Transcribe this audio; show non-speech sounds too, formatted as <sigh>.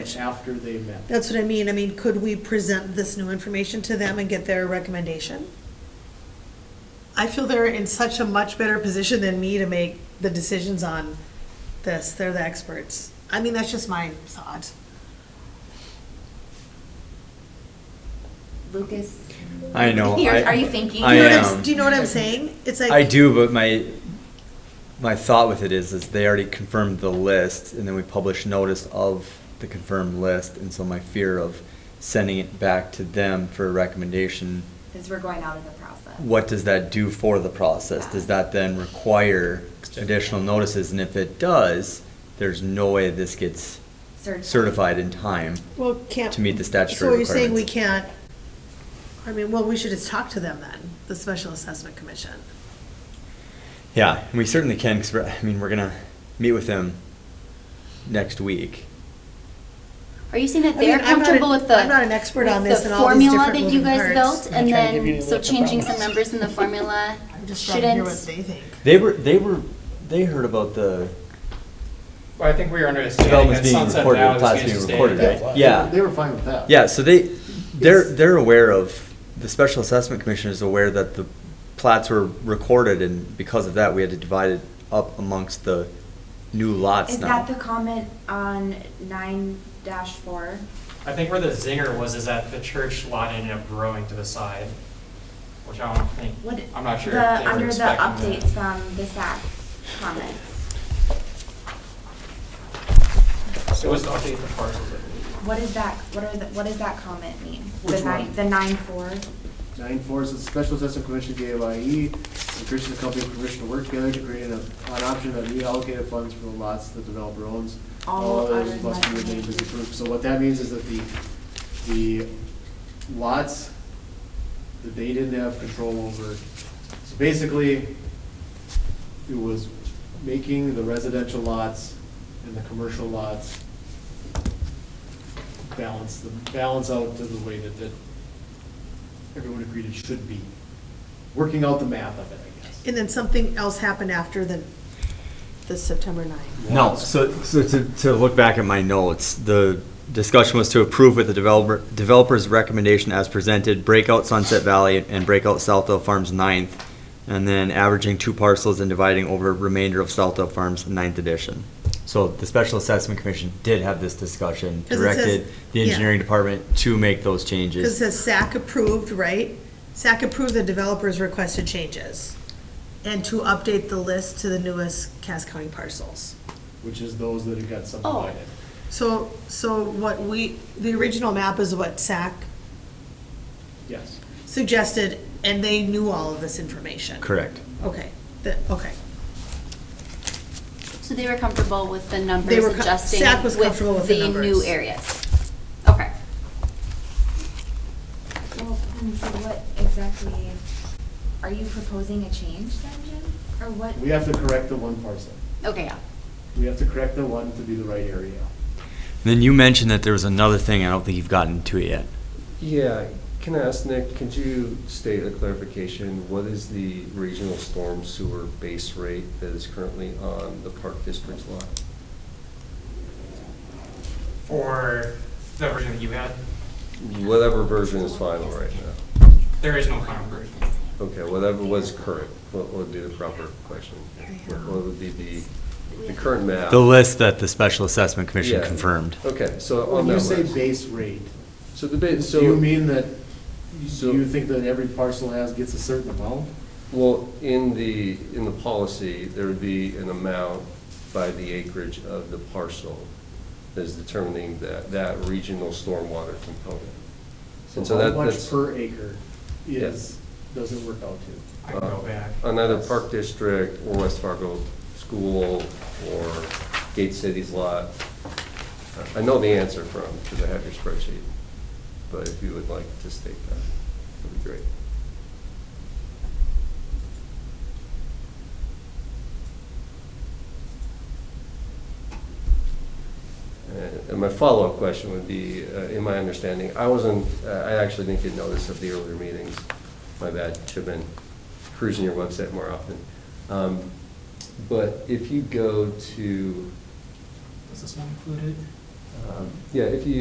much after they met. That's what I mean. I mean, could we present this new information to them and get their recommendation? I feel they're in such a much better position than me to make the decisions on this. They're the experts. I mean, that's just my thought. Lucas, I <laughs> know. You're- I- are you thinking? I You know what am. I'm- Do you know what I'm saying? It's like. I do, but my my thought with it is, is they already confirmed the list, and then we publish notice of the confirmed list, and so my fear of sending it back to them for a recommendation. as we're going out in the process. What does that do for the process? Does that then require additional notices? And if it does, there's no way this gets Certified. certified in time. Well, can't. to meet the statutory So you're saying we requirements. can't, I mean, well, we should just talk to them then, the Special Assessment Commission. Yeah, and we certainly can, because I mean, we're gonna meet with them next week. Are you saying that I mean, they're I'm not comfortable an- with the? I'm not an expert with on this the and all these different moving Formula that you parts. guys built, and I'm trying to give you then, the so list of changing some problems. numbers in the formula <laughs> I'm just trying to hear what shouldn't, they think. They were, they were, they heard about the Well, I think we were understanding developments that being Sunset recorded, Valley was plots going being to stay. recorded, at right? that. Yeah, They were fine with that. yeah, so they, they're, they're aware of, the special assessment commission is aware that the plats were recorded, and because of that, we had to divide it up amongst the new lots Is now. that the comment on nine dash four? I think where the zinger was is that the church lot ended up growing to the side, which I don't think, What? I'm not sure The, if they were under the expecting updates that. from the SAC comments, It was to update the parcels, I believe. what is that, what are the, what does that comment mean? The Which nine, one? the nine four? Nine four is the special assessment commission to the AYE, encourages E. the company permission to work together to create an, an option of reallocated funds for the lots the developer owns. All others must others be must be remained as named. approved. So what that means is that the, the lots that they didn't have control over, so basically, it was making the residential lots and the commercial lots balance, the, balance out to the way that, that everyone agreed it should be. Working out the math of it, I guess. And then something else happened after the, the September 9. No, so, so to, to look back at my notes, the discussion was to approve with the developer, developer's recommendation as presented, breakout Sunset Valley and breakout Southdale Farms ninth, and then averaging two parcels and dividing over remainder of Southdale Farms ninth edition. So the Special Assessment Commission did have this discussion, 'Cause it says- directed the yeah. engineering department to make those changes. Because it says SAC approved, right? SAC approved the developer's requested changes and to update the list to the newest Cass County parcels. Which is those that it got subdivided. So, so what we, the original map is what SAC Yes. suggested, and they knew all of this information. Correct. Okay, the, okay. so they were comfortable with the They numbers were co- adjusting SAC was comfortable with with the the new numbers. areas? Okay. Well, hmm, so what exactly, are you proposing a change then, Jim, or what? We have to correct the one parcel. Okay, yeah. We have to correct the one to be the right area. Then you mentioned that there was another thing, I don't think you've gotten to it yet. Yeah, can I ask, Nick, could you state a clarification? What is the regional storm sewer base rate that is currently on the Park District's lot? For the version that you had, Whatever version is final right now. there is no final version. Okay, whatever was current, what would be the proper question? What would be the, the current map? The list that the Special Assessment Commission Yeah. confirmed. Okay, so on When you that say list. base rate, So the base, so. do you mean that, So- do you think that every parcel has, gets a certain amount? Well, in the, in the policy, there would be an amount by the acreage of the parcel that's determining that, that regional stormwater component. And so how that- much that's- per acre Yeah. is, does it work out to? I can go back. Uh, Another Park District or West Fargo School or Gate City's lot. I I know the answer from, because I have your spreadsheet, but if you would like to state that, that'd be great. Uh, And my follow-up question would be, uh, in my understanding, I wasn't, uh, I actually didn't get notice of the earlier meetings. My bad, should have been cruising your website more often. Um, But if you go to, Does this one included? Um, Yeah, if you